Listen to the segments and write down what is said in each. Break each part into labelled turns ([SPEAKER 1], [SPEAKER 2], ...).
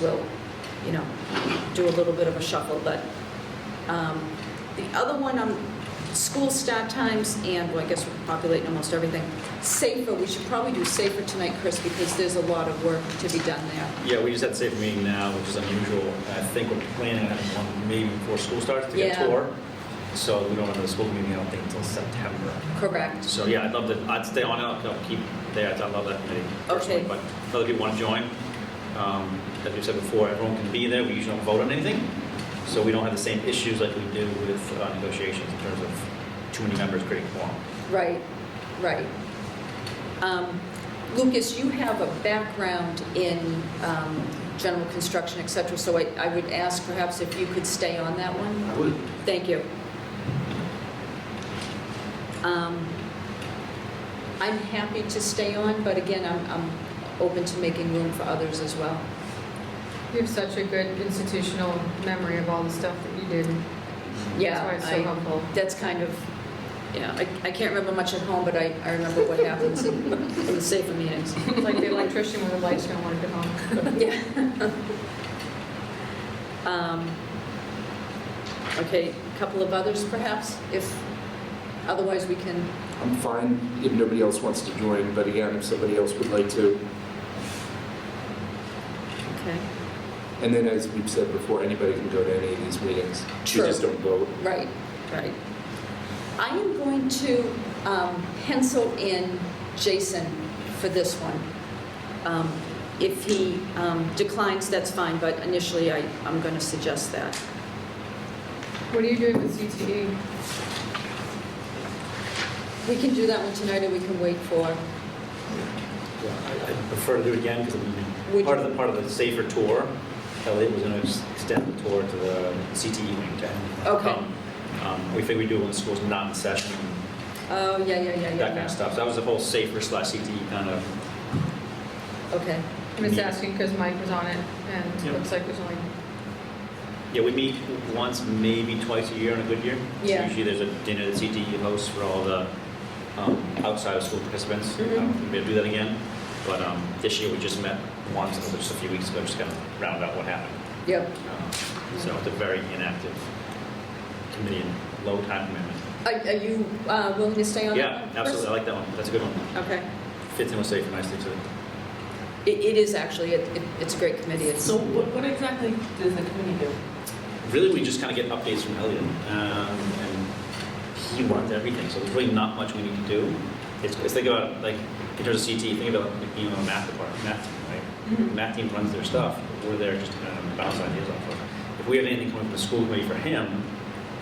[SPEAKER 1] we'll, you know, do a little bit of a shuffle, but um, the other one on school start times, and well, I guess we're populating almost everything, safer, we should probably do safer tonight, Chris, because there's a lot of work to be done there.
[SPEAKER 2] Yeah, we just had a safe meeting now, which is unusual. I think we're planning on one maybe before school starts to get
[SPEAKER 1] Yeah.
[SPEAKER 2] a tour. So we don't have the school meeting, I don't think, until September.
[SPEAKER 1] Correct.
[SPEAKER 2] So yeah, I'd love to, I'd stay on it, I'll I'll keep there, I love that committee personally.
[SPEAKER 1] Okay.
[SPEAKER 2] But if other people want to join, um, as we said before, everyone can be there, we usually don't vote on anything. So we don't have the same issues like we do with uh, negotiations in terms of too many members creating quorum.
[SPEAKER 1] Right, right. Um, Lucas, you have a background in um, general construction, et cetera, so I I would ask perhaps if you could stay on that one?
[SPEAKER 3] I would.
[SPEAKER 1] Thank you. Um, I'm happy to stay on, but again, I'm, I'm open to making room for others as well.
[SPEAKER 4] You have such a good institutional memory of all the stuff that you did.
[SPEAKER 1] Yeah,
[SPEAKER 4] Mm-hmm. That's why
[SPEAKER 1] I-
[SPEAKER 4] it's so helpful.
[SPEAKER 1] That's kind of, you know, I, I can't remember much at home, but I, I remember what happens in in the safer meetings.
[SPEAKER 4] It's like the electrician when the lights don't work at home.
[SPEAKER 1] Yeah. Um, Okay, a couple of others perhaps, if, otherwise we can,
[SPEAKER 3] I'm fine if nobody else wants to join, but again, if somebody else would like to.
[SPEAKER 1] okay.
[SPEAKER 3] And then, as we've said before, anybody can go to any of these meetings.
[SPEAKER 1] True.
[SPEAKER 3] We just don't vote.
[SPEAKER 1] Right, right. I am going to um, pencil in Jason for this one. Um, If he um, declines, that's fine, but initially I, I'm going to suggest that.
[SPEAKER 4] What are you doing with CTE?
[SPEAKER 1] We can do that one tonight or we can wait for,
[SPEAKER 2] Yeah, I I prefer to do it again because
[SPEAKER 1] Would
[SPEAKER 2] part
[SPEAKER 1] you-
[SPEAKER 2] of the, part of the safer tour, Elliot was going to extend the tour to the CTE wing to have
[SPEAKER 1] Okay.
[SPEAKER 2] come. Um, We figured we'd do it when school's not in session,
[SPEAKER 1] oh, yeah, yeah, yeah, yeah.
[SPEAKER 2] that kind of stuff. So that was the whole safer slash CTE kind of,
[SPEAKER 1] Okay,
[SPEAKER 4] I'm just
[SPEAKER 2] Me.
[SPEAKER 4] asking because Mike was on it and
[SPEAKER 2] Yeah.
[SPEAKER 4] it looks like there's only,
[SPEAKER 2] yeah, we meet once, maybe twice a year on a good year. So
[SPEAKER 1] Yeah.
[SPEAKER 2] Usually there's a dinner that CTE hosts for all the um, outside of school participants. Um, I
[SPEAKER 1] Mhm.
[SPEAKER 2] don't think We're going to do that again, but um, this year we just met once, it was just a few weeks ago, just kind of round out what happened.
[SPEAKER 1] yep.
[SPEAKER 2] Um, So it's a very inactive committee and low time commitment.
[SPEAKER 1] Are are you uh, willing to stay on that
[SPEAKER 2] Yeah,
[SPEAKER 1] one? Chris?
[SPEAKER 2] absolutely, I like that one, that's a good one.
[SPEAKER 1] Okay.
[SPEAKER 2] Fits in with safe nicely too.
[SPEAKER 1] It, it is actually, it, it- it's a great committee, it's,
[SPEAKER 5] So what, what exactly does the committee do?
[SPEAKER 2] Really, we just kind of get updates from Elliot, um, and he runs everything, so there's really not much we need to do. It's, it's think about, like, in terms of CT, think about like, being on a math department, math team,
[SPEAKER 5] Mm-hmm.
[SPEAKER 2] right? Math team runs their stuff, we're there just to kind of bounce ideas off of. If we have anything coming from the school committee for him,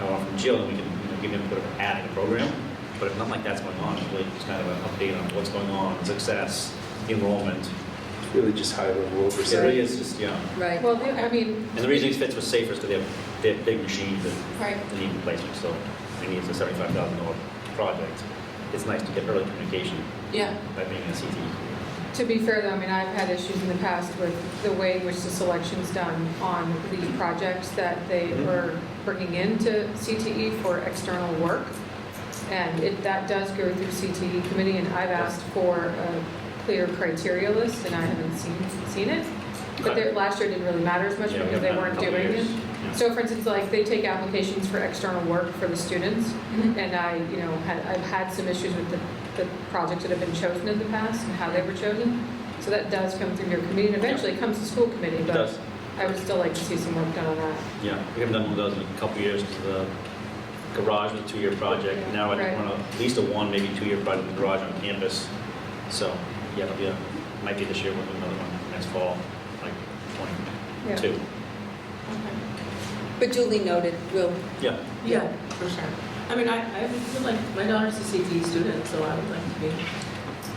[SPEAKER 2] or from Jill, then we can, you know, give him a bit of an ad in the program. But if nothing like that's going on, it's really just kind of an update on what's going on, success, enrollment.
[SPEAKER 3] It's Really just high level
[SPEAKER 2] It
[SPEAKER 3] oversight.
[SPEAKER 2] really is just, yeah.
[SPEAKER 1] right.
[SPEAKER 4] well, the- I mean,
[SPEAKER 2] And the reason it fits with safer is because they have, they have big machines and
[SPEAKER 4] right,
[SPEAKER 2] the need replacement, so we need a seventy-five thousand dollar project. It's nice to get early communication
[SPEAKER 5] Yeah.
[SPEAKER 2] by being in a CTE.
[SPEAKER 4] to be fair though, I mean, I've had issues in the past with the way in which the selection's done on the projects that they
[SPEAKER 2] Mhm.
[SPEAKER 4] were bringing into CTE E for external work. And it, that does go through CTE committee and I've asked for a clear criteria list and I haven't seen, seen it. But there, last year didn't really matter as much
[SPEAKER 2] Yeah, we haven't
[SPEAKER 4] because they
[SPEAKER 2] had a
[SPEAKER 4] weren't
[SPEAKER 2] couple
[SPEAKER 4] doing
[SPEAKER 2] years.
[SPEAKER 4] it.
[SPEAKER 2] Yeah.
[SPEAKER 4] So for instance, like, they take applications for external work for the students, and I, you know, had, I've had some issues with the, the projects that have been chosen in the past and how they were chosen. So that does come through your committee, and eventually it comes to school committee,
[SPEAKER 2] It
[SPEAKER 4] but
[SPEAKER 2] does,
[SPEAKER 4] I would still like to see some work done on that.
[SPEAKER 2] yeah, we haven't done one of those in a couple of years, because the garage was a two-year project, now I think
[SPEAKER 4] Right.
[SPEAKER 2] one of, at least a one, maybe two-year project, in the garage on campus. So, yeah, it'll be a, might be this year, we'll do another one next fall, like
[SPEAKER 4] Yeah.
[SPEAKER 2] twenty-two.
[SPEAKER 1] But duly noted, we'll,
[SPEAKER 2] Yeah,
[SPEAKER 5] Yeah, for sure. I mean, I, I would feel like, my daughter's a CTE student, so I would like to be.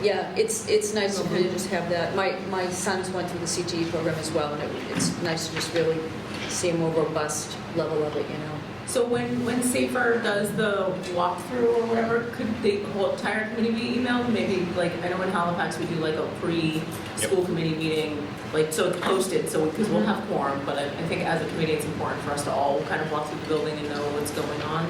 [SPEAKER 1] Yeah, it's, it's nice to really just have that. My, my sons went through the CTE program as well, and it- it's nice to just really see a more robust level of it, you know?
[SPEAKER 5] So when, when Safer does the walkthrough or whatever, could the whole entire committee be emailed? Maybe, like, I know in Halifax, we do like a pre-school committee meeting, like, so it's posted, so, because we'll have quorum, but I, I think as a committee, it's important for us to all kind of walk through the building and know what's going on.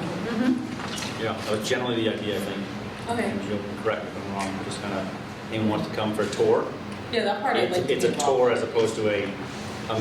[SPEAKER 2] yeah, that was generally the idea, I think.
[SPEAKER 5] Okay.
[SPEAKER 2] And You'll correct me if I'm wrong, just kind of, anyone wants to come for a tour?
[SPEAKER 5] Yeah, that part I'd
[SPEAKER 2] It's
[SPEAKER 5] like to be
[SPEAKER 2] it's a
[SPEAKER 5] involved
[SPEAKER 2] tour
[SPEAKER 5] in.
[SPEAKER 2] as opposed to a